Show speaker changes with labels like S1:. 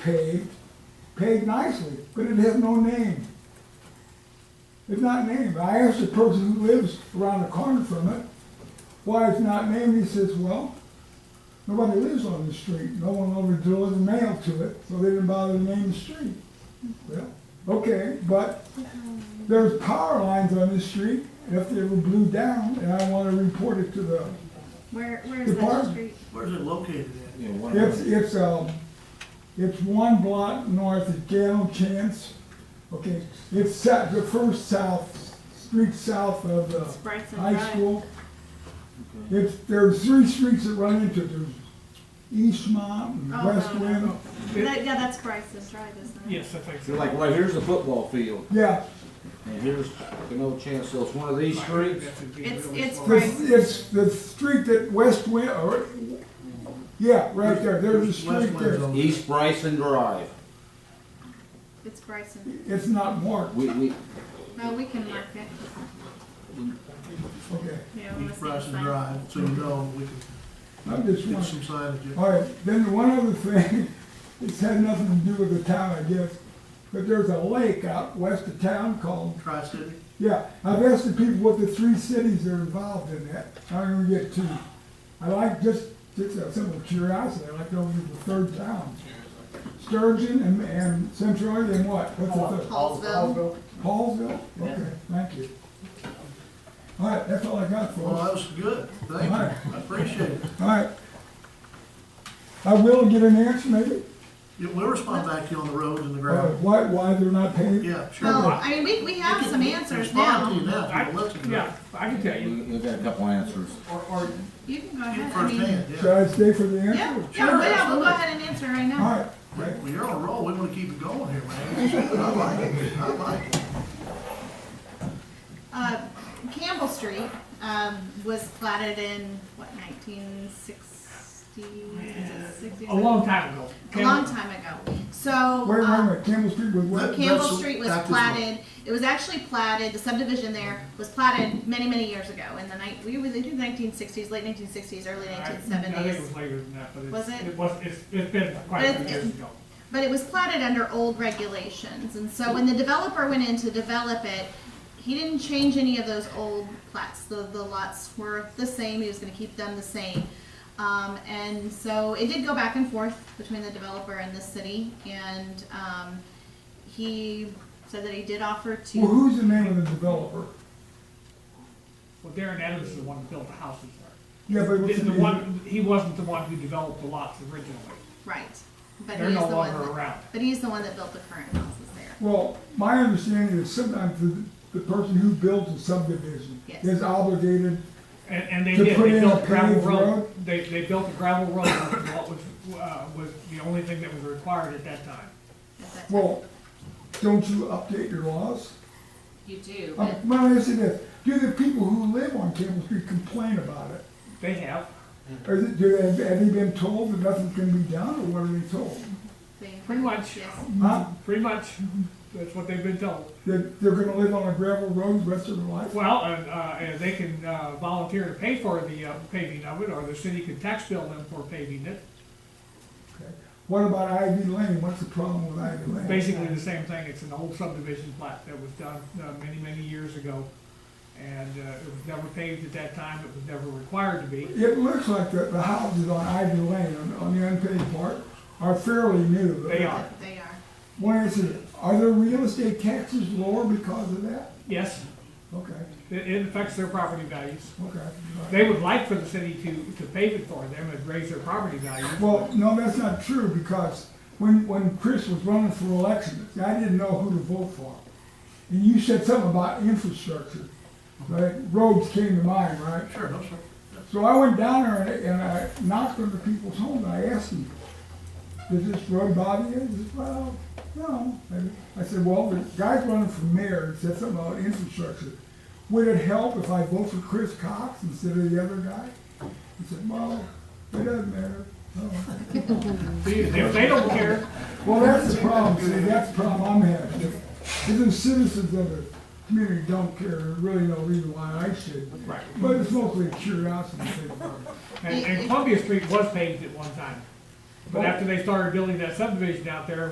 S1: paved, paved nicely, but it has no name. It's not named. I asked the person who lives around the corner from it, why it's not named, he says, well, nobody lives on the street, no one ever delivers mail to it, so they didn't bother to name the street. Well, okay, but there's power lines on this street, if they were blew down, and I wanna report it to the,
S2: Where, where is that
S1: Department.
S2: street?
S3: Where's it located at?
S4: You know, one
S1: it's,
S4: of the,
S1: it's, um, it's one block north of Gale Chance, okay? It's south, the first south, street south of the
S2: Bryson
S1: high
S2: Drive.
S1: school. It's, there's three streets that run into it, there's Eastmont and
S2: Oh,
S1: West
S2: no, no.
S1: Wind.
S2: That, yeah, that's Bryson's Drive, isn't it?
S5: Yes, I think
S4: so
S5: so.
S4: like, well, here's the football field,
S1: Yeah,
S4: and here's the no chance, so it's one of these streets.
S2: It's- it's
S1: it's, it's the street that West Wind, or, yeah, right there, there's a street there.
S4: East Bryson Drive.
S2: It's Bryson.
S1: It's not marked,
S4: We, we,
S2: No, we can mark it.
S1: okay,
S2: Yeah, we'll see
S3: East
S2: the
S3: Bryson
S2: sign.
S3: Drive, so you know, we
S1: I'm just
S3: can get
S1: wondering.
S3: some signage.
S1: All right, then one other thing, it's had nothing to do with the town, I guess, but there's a lake out west of town called,
S3: Tri-City,
S1: yeah, I've asked the people what the three cities are involved in that, I'm gonna get to. I like just, just a simple curiosity, I like to know the third town. Sturgeon and, and Centroid and what, what's the third?
S2: Hallsville.
S1: Paulsville? Okay, thank you. All right, that's all I got for
S3: well,
S1: us.
S3: Oh, that was good, thank you, I appreciate it.
S1: All right. I will get an answer maybe,
S3: Yeah, We'll respond back to you on the roads and the
S1: uh,
S3: gravel,
S1: why, why they're not paved.
S3: yeah, sure.
S2: No, I mean, we, we have some answers
S3: Respond to
S2: now.
S3: you now,
S5: I,
S3: if you listen to it,
S5: yeah, I can tell you.
S4: we- we've got a couple answers.
S3: or, or
S2: You can go
S3: get
S2: ahead, I mean,
S3: firsthand,
S1: Should
S3: yeah.
S1: I stay for the
S2: yeah,
S1: answer?
S2: yeah, well,
S3: Sure,
S2: yeah, we'll
S3: absolutely.
S2: go ahead and answer right
S1: All
S2: now.
S1: right, right.
S3: Well, you're on a roll, we wanna keep it going here, man. I like it, I like it.
S2: Uh, Campbell Street, um, was platted in, what, nineteen sixty?
S5: A long time ago.
S2: A long time ago. So.
S1: Wait, wait,
S2: um,
S1: wait, Campbell Street was what?
S3: That-
S2: Campbell
S3: that's-
S2: Street was
S3: that is-
S2: platted, it was actually platted, the subdivision there was platted many, many years ago, in the night, we were, they did nineteen sixties, late nineteen sixties, early
S5: I-
S2: nineteen
S5: I think it
S2: seventies.
S5: was later than that, but it's.
S2: Was it?
S5: It was, it's, it's been quite a few
S2: But
S5: years
S2: it's-
S5: ago.
S2: But it was platted under old regulations, and so when the developer went in to develop it, he didn't change any of those old plats, the, the lots were the same, he was gonna keep them the same. Um, and so it did go back and forth between the developer and the city, and, um, he said that he did offer to.
S1: Well, who's the name of the developer?
S5: Well, Darren Adams is the one who built the houses there.
S1: Yeah, but what's
S5: The-
S1: the
S5: The
S1: name?
S5: one, he wasn't the one who developed the lots originally.
S2: Right, but
S5: They're
S2: he's
S5: no
S2: the one,
S5: longer
S2: that-
S5: around.
S2: but he's the one that built the current houses there.
S1: Well, my understanding is sometimes the, the person who builds a subdivision
S2: Yes.
S1: is obligated,
S5: And, and they
S1: To
S5: did,
S1: put
S5: they
S1: in
S5: built
S1: a
S5: a gravel
S1: paved
S5: road,
S1: road?
S5: they, they built a gravel road, and what was, uh, was the only thing that was required at that time.
S2: Is that-
S1: well, don't you update your laws?
S6: You do,
S1: Uh,
S6: but
S1: Well, yes, it is. Do the people who live on Campbell Street complain about it?
S5: They have,
S1: Or is it, do they, have they been told that nothing can be done, or what are they told?
S2: they-
S5: pretty much.
S2: Yes,
S1: Huh?
S5: pretty much, that's what they've been told.
S1: That they're gonna live on a gravel road the rest of their life?
S5: Well, and, uh, and they can, uh, volunteer to pay for the, uh, paving of it, or the city could tax bill them for paving it.
S1: Okay. What about Ivy Lane? What's the problem with Ivy Lane?
S5: Basically the same thing, it's an old subdivision plat that was done, uh, many, many years ago. And, uh, it was never paved at that time, it was never required to be.
S1: It looks like the, the houses on Ivy Lane, on, on the unpaid part, are fairly new.
S5: They are.
S2: they are.
S1: One answer, are their real estate taxes lower because of that?
S5: Yes,
S1: Okay,
S5: it, it affects their property values.
S1: okay. all right.
S5: They would like for the city to, to pave it for them and raise their property values.
S1: Well, no, that's not true, because when, when Chris was running for election, I didn't know who to vote for. And you said something about infrastructure, right? Roads came to mind, right?
S3: Sure, no, sir.
S1: So I went down there and, and I knocked on the people's home and I asked them, does this road bother you? They said, well, no. And I said, well, the guy's running for mayor and said something about infrastructure. Would it help if I vote for Chris Cox instead of the other guy? He said, well, it doesn't matter. Oh.
S5: If they don't care,
S1: Well, that's the problem, see, that's the problem I'm having. If if the citizens of the community don't care, there's really no reason why I should.
S5: right.
S1: But it's mostly a curiosity thing.
S5: And, and Columbia Street was paved at one time. But after they started building that subdivision out there,